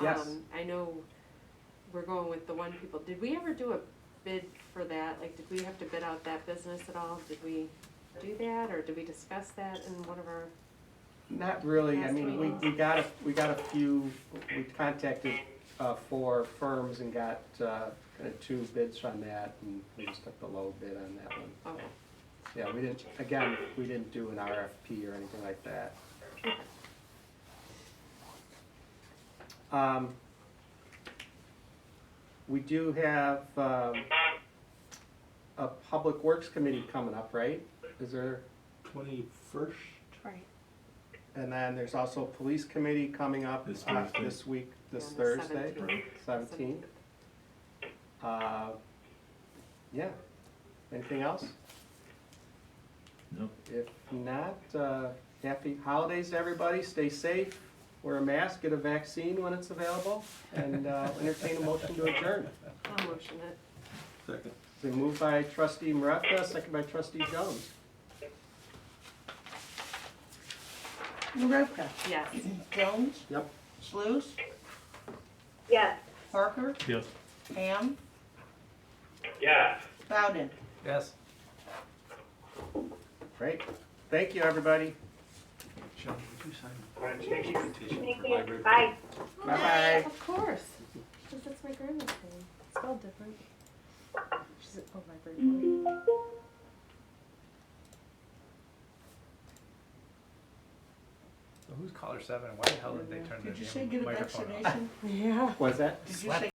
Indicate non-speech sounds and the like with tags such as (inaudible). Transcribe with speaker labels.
Speaker 1: Yes.
Speaker 2: Um, I know we're going with the one people, did we ever do a bid for that? Like, did we have to bid out that business at all? Did we do that, or did we discuss that in one of our,
Speaker 1: Not really, I
Speaker 2: Last
Speaker 1: mean, we,
Speaker 2: meeting.
Speaker 1: we got, a we got a few, we contacted, uh, four firms and got, uh, kind of two bids on that, and we just took the low bid on that one.
Speaker 2: oh,
Speaker 1: Yeah, we didn't, again, we didn't do an RFP or anything like that. Um, we do have, um, a Public Works Committee coming up, right? Is there?
Speaker 3: Twenty-first?
Speaker 4: Right.
Speaker 1: And then there's also a police committee coming up
Speaker 3: This
Speaker 1: uh,
Speaker 3: Thursday.
Speaker 1: this week, this
Speaker 2: On the
Speaker 1: Thursday,
Speaker 2: 17th.
Speaker 1: seventeenth. Uh, Yeah, anything else?
Speaker 3: No.
Speaker 1: If not, uh, happy holidays to everybody, stay safe, wear a mask, get a vaccine when it's available, and uh, entertain a motion to adjourn.
Speaker 2: I'll motion it.
Speaker 3: Second.
Speaker 1: It's been moved by trustee Maravka, second by trustee Jones.
Speaker 5: Marovka,
Speaker 2: Yes.
Speaker 5: Jones,
Speaker 1: Yep.
Speaker 5: Sluse,
Speaker 2: Yes.
Speaker 5: Parker,
Speaker 3: Yes.
Speaker 5: Ham. Yes. Bowden.
Speaker 3: Yes.
Speaker 1: Great, thank you, everybody,
Speaker 3: Sean, would you sign the invitation for library?
Speaker 1: bye-bye.
Speaker 2: Of course, because that's my grandma's name, spelled different. She's, oh, my grandma.
Speaker 6: Who's caller seven and why the hell did they turn
Speaker 5: Did you
Speaker 6: their
Speaker 5: say
Speaker 6: damn
Speaker 5: get a
Speaker 6: microphone off?
Speaker 5: vaccination?
Speaker 2: Yeah. (laughs)
Speaker 1: What's that?
Speaker 5: Did you say